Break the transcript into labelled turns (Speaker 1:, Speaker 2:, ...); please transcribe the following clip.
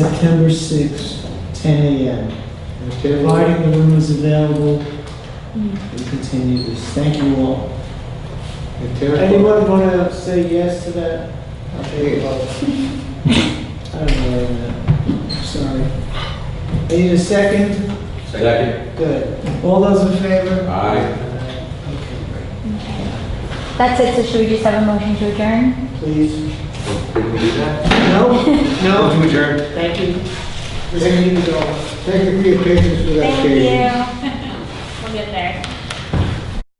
Speaker 1: September 6th, 10 a.m. Providing the room is available, we continue this. Thank you all. Anyone want to say yes to that? I'll take a vote. I don't know that. Sorry. I Need a second?
Speaker 2: Second.
Speaker 1: Good. All those in favor?
Speaker 2: Aye.
Speaker 1: Okay, great.
Speaker 3: That's it, so should we just have a motion to adjourn?
Speaker 1: Please.
Speaker 2: Did we do that?
Speaker 1: No? No?
Speaker 2: Motion adjourned.
Speaker 1: Thank you. We need to go.
Speaker 4: Thank you for your patience with that,
Speaker 3: Thank
Speaker 4: Katie.
Speaker 3: you.